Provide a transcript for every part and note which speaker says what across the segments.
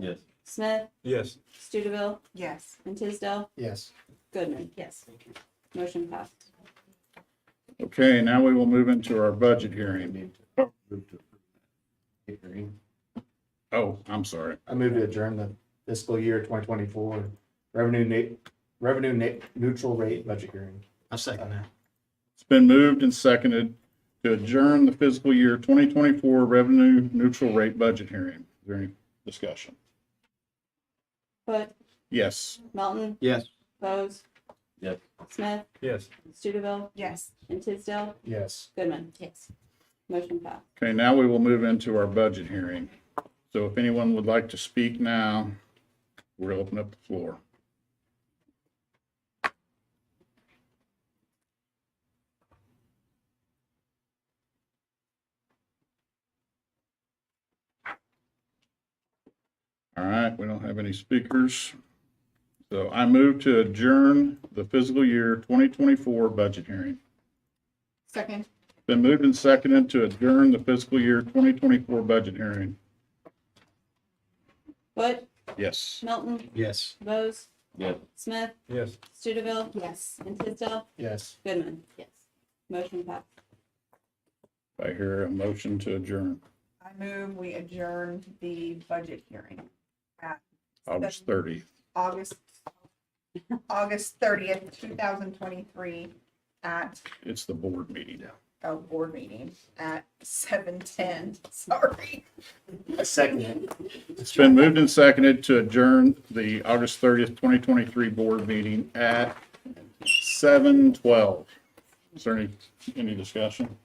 Speaker 1: Yes.
Speaker 2: Smith,
Speaker 3: Yes.
Speaker 2: Studeville,
Speaker 4: Yes.
Speaker 2: and Tisdale,
Speaker 5: Yes.
Speaker 2: Goodman.
Speaker 4: Yes.
Speaker 2: Motion passed.
Speaker 6: Okay, now we will move into our budget hearing.
Speaker 7: Oh.
Speaker 5: Move to approve. Hearing.
Speaker 6: Oh, I'm sorry.
Speaker 5: I move to adjourn the fiscal year twenty twenty-four revenue na- revenue na- neutral rate budget hearing.
Speaker 7: I second that.
Speaker 6: It's been moved and seconded to adjourn the fiscal year 2024 revenue neutral rate budget hearing. Is there any discussion?
Speaker 2: Hood,
Speaker 6: Yes.
Speaker 2: Melton,
Speaker 7: Yes.
Speaker 2: Bose.
Speaker 1: Yes.
Speaker 2: Smith,
Speaker 3: Yes.
Speaker 2: Studeville,
Speaker 4: Yes.
Speaker 2: and Tisdale,
Speaker 5: Yes.
Speaker 2: Goodman.
Speaker 4: Yes.
Speaker 2: Motion passed.
Speaker 6: Okay, now we will move into our budget hearing. So if anyone would like to speak now, we'll open up the floor. All right, we don't have any speakers. So I move to adjourn the fiscal year 2024 budget hearing.
Speaker 2: Second.
Speaker 6: Been moved and seconded to adjourn the fiscal year 2024 budget hearing.
Speaker 2: Hood,
Speaker 6: Yes.
Speaker 2: Melton,
Speaker 7: Yes.
Speaker 2: Bose,
Speaker 1: Yes.
Speaker 2: Smith,
Speaker 3: Yes.
Speaker 2: Studeville,
Speaker 4: Yes.
Speaker 2: and Tisdale,
Speaker 5: Yes.
Speaker 2: Goodman.
Speaker 4: Yes.
Speaker 2: Motion passed.
Speaker 6: I hear a motion to adjourn
Speaker 4: I move we adjourn the budget hearing at
Speaker 6: August 30th.
Speaker 4: August, August thirtieth, two thousand twenty-three at,
Speaker 6: It's the board meeting.
Speaker 4: oh, board meeting at seven ten, sorry.
Speaker 5: I second it.
Speaker 6: It's been moved and seconded to adjourn the August 30th, 2023 board meeting at 7:12. Is there any, any discussion?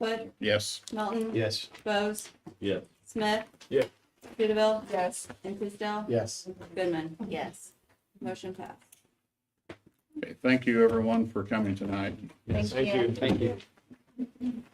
Speaker 2: Hood,
Speaker 6: Yes.
Speaker 2: Melton,
Speaker 7: Yes.
Speaker 2: Bose,
Speaker 1: Yes.
Speaker 2: Smith.
Speaker 3: Yeah.
Speaker 2: Studeville,
Speaker 4: Yes.
Speaker 2: and Tisdale,
Speaker 5: Yes.
Speaker 2: Goodman.
Speaker 4: Yes.
Speaker 2: Motion passed.
Speaker 6: Okay, Thank you, everyone, for coming tonight.
Speaker 4: Thank you.
Speaker 7: Thank you.